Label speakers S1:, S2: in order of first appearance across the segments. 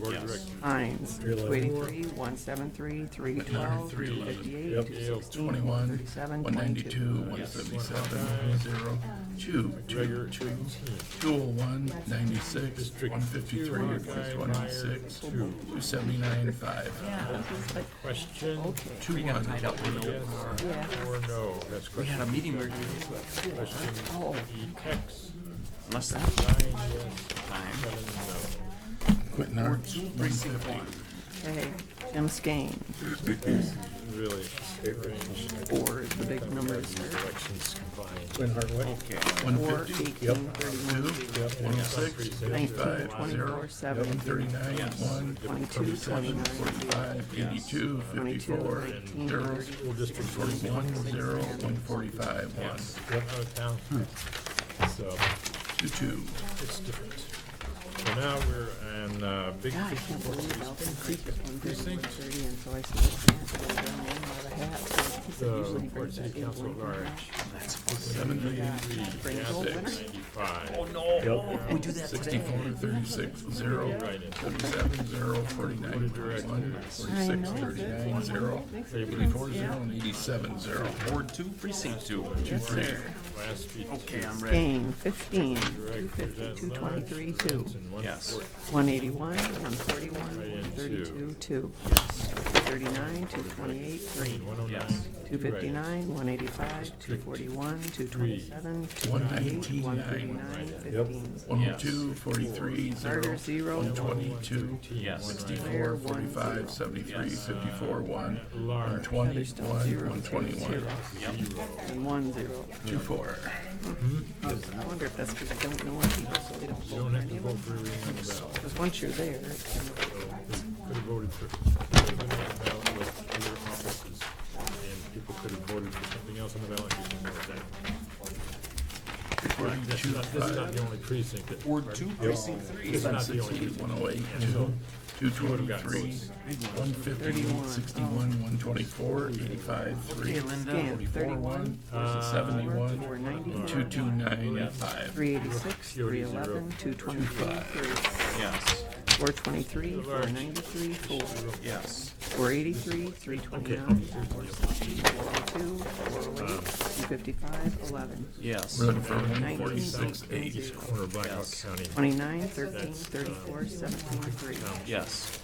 S1: Board of
S2: Yes.
S1: Directors.
S3: Hines,
S1: Three eleven.
S3: two eighty-three, one seventy-three, three twelve,
S4: Three
S3: two
S4: eleven.
S3: fifty-eight, two
S1: Yep.
S3: sixteen, one
S4: 21,
S3: thirty-seven,
S4: 192,
S3: twenty-two.
S4: 177, 0, 2, 2,
S1: Gregor,
S4: 2, 201, 96,
S1: District
S4: 153,
S1: two, Hawkeye, Meyer,
S4: 196,
S1: two.
S4: 279, 5,
S3: Yeah, it was like,
S1: Question,
S4: 21.
S5: tied up
S1: yes
S5: with
S3: yeah,
S1: or no? That's
S5: We had a
S1: question.
S5: meeting where,
S1: Question
S3: oh,
S1: EX,
S5: unless that
S1: nine yes,
S5: time,
S1: seven no.
S4: Quentin Arts, 150.
S3: okay, Jim Skane,
S1: Really, it range
S3: four is the big number here.
S1: elections combined.
S6: Win Hardwick.
S3: Four,
S4: 150,
S3: eighteen, thirty-one,
S4: 106,
S3: nineteen,
S4: 55, 0,
S3: twenty-four, seven,
S4: 139, 1,
S3: twenty-two,
S4: 7,
S3: twenty-nine,
S4: 45, 82,
S3: twenty-two,
S4: 54,
S3: nineteen,
S4: 0,
S3: thirty,
S1: District forty-one,
S4: 41, 0, 145, 1,
S1: yep, out of town.
S3: Hmm.
S1: So
S4: 2, 2.
S1: it's different. So now we're on, uh, Big
S3: Yeah, I
S1: Fifty
S3: can't
S1: Four.
S3: believe Alvin Creek is one thirty, one thirty, and so I said, I can't go down one by the hat. So he said,
S1: So,
S3: usually he
S1: Fort
S3: brings that
S1: uh, City
S3: in
S1: Council
S3: one
S1: at large,
S4: Seventy,
S3: Bring it
S1: Gassick,
S3: over.
S1: ninety-five.
S5: we do that today.
S4: sixty-four, thirty-six, zero, forty-seven, zero, forty-nine, one, forty-six, thirty-nine, zero, thirty-four, zero, and eighty-seven, zero.
S5: Ward two, precinct two.
S4: There.
S1: Last speech.
S5: Okay, I'm ready.
S3: Skane, fifteen, two
S1: Directors
S3: fifty,
S1: at
S3: two
S1: large,
S3: twenty-three, two.
S1: Johnson, one
S5: Yes.
S1: fourth.
S3: 181, 141, 132, 2. 239, 228, 3.
S1: 109,
S5: Yes.
S3: 259, 185, 241, 227, 228, 139, 15.
S4: One, two, forty-three,
S3: Carter,
S4: zero,
S3: 0,
S4: twenty-two,
S5: Yes.
S4: sixty-four, forty-five, seventy-three, fifty-four, one, one
S1: Large,
S4: twenty, one, one twenty-one,
S3: 1, 0.
S4: two, four.
S3: I wonder if that's because I don't know any people, so they don't
S1: you
S3: vote
S1: don't
S3: for
S1: have to
S3: any of
S1: vote
S3: them.
S1: for every on the ballot.
S3: Because once you're there, it's kind of-
S1: Could have voted for, could have been on the ballot with other offices, and people could have voted for something else on the ballot, and didn't vote that. That's
S4: Forty-two,
S1: not, this is not
S4: five,
S1: the only precinct that.
S5: Ward two, precinct three.
S1: It's not the
S4: sixty,
S1: only.
S4: one oh eight, two, two twenty-three, one fifty,
S3: 31,
S4: sixty-one, one twenty-four, eighty-five, three.
S5: Okay, Linda.
S3: Scan, 31,
S4: 71,
S3: 491,
S4: 2295,
S3: 386, 311, 223, 3,
S5: Yes,
S3: 423, 493, 4.
S5: yes.
S3: 483, 329, 460, 402, 408, 255, 11,
S5: Yes.
S4: Road for
S3: 19,
S4: 146, 8,
S3: 20,
S1: Corner of Blackhawk
S5: Yes.
S1: County,
S3: 29, 13, 34, 17, 3.
S5: Yes.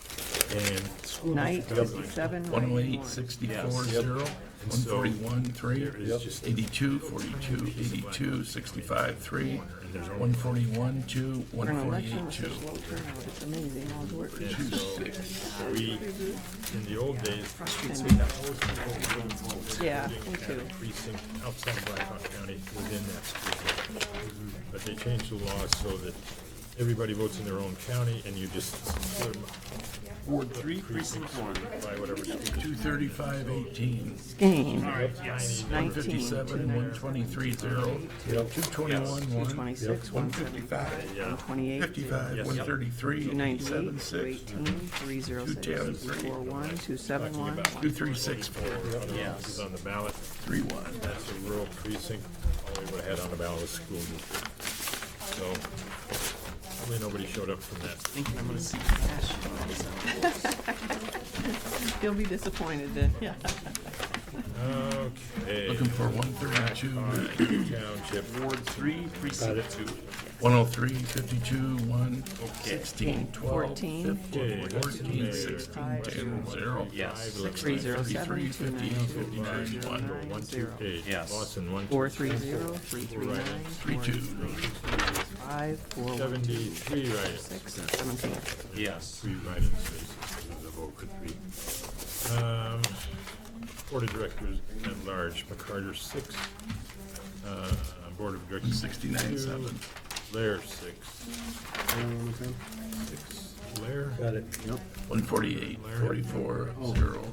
S1: and school
S3: Night,
S1: district guidelines.
S3: 57,
S4: 108,
S3: 91.
S4: 64, 0, 141, 3, 82, 42, 82, 65, 3, 141, 2,
S3: For an election
S4: 148,
S3: with
S4: 2,
S3: such low turnout, it's amazing all the work.
S4: 26.
S1: We, in the old days,
S3: Yeah, me too.
S1: precinct outside of Blackhawk County within that school district. But they changed the law so that everybody votes in their own county, and you just split 'em
S5: Ward three, precinct one.
S1: by whatever school district.
S4: 235, 18,
S3: Game,
S1: Yes.
S3: 19,
S4: 157, 123, 0, 221, 1,
S3: 226,
S4: 155,
S3: 128,
S4: 55, 133, 87,
S3: 298,
S4: 6,
S3: 218, 306, 241, 271,
S4: 2364,
S1: Yes. Is on the ballot,
S4: 31.
S1: that's a rural precinct, all we would've had on the ballot was school district. So, probably nobody showed up from that.
S5: Thinking I'm gonna see cash.
S3: You'll be disappointed then.
S1: Okay.
S4: Looking for 132,
S1: Township,
S5: Ward three, precinct two.
S4: 103, 52, 1, 16, 12,
S3: 14.
S4: 15, 14, 16, 10, 0,
S5: Yes.
S3: 307,
S4: 63, 58, 59, 1,
S3: 290, 0.
S1: eight,
S5: Yes.
S1: Lawson, one.
S3: Four three zero, three three nine, four
S4: 32,
S3: five, four one two,
S1: Seventy-three write-ins,
S3: six, seventeen.
S5: Yes.
S1: three write-ins, the vote could be. Um, Board of Directors at large, McCarter, six. Uh, Board of Directors,
S4: 69, 7.
S1: Lair, six. Six, Lair,
S6: Got it. Yep.
S4: 148, 44, 0,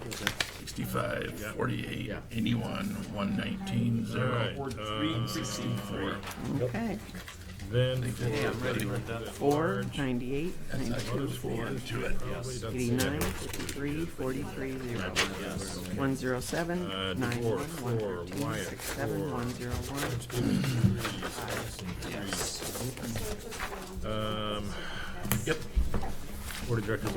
S4: 65, 48, 81, 119, 0,
S1: Alright, uh,
S4: 64,
S3: Okay,
S1: then
S5: Hey,
S1: for
S5: I'm ready, Linda.
S3: four, ninety-eight,
S4: that's not
S3: ninety-two,
S4: good for to it.
S1: probably doesn't say
S3: eighty-nine,
S1: that.
S3: three, forty-three, zero. One zero seven,
S1: Uh,
S3: nine one,
S1: DeBoer,
S3: one
S1: four,
S3: thirteen,
S1: Wyatt,
S3: six seven,
S1: four.
S3: one zero one,
S1: Stevens, three, Swanson, three.
S5: Yes.
S1: Um,
S4: Yep.
S1: Board of Directors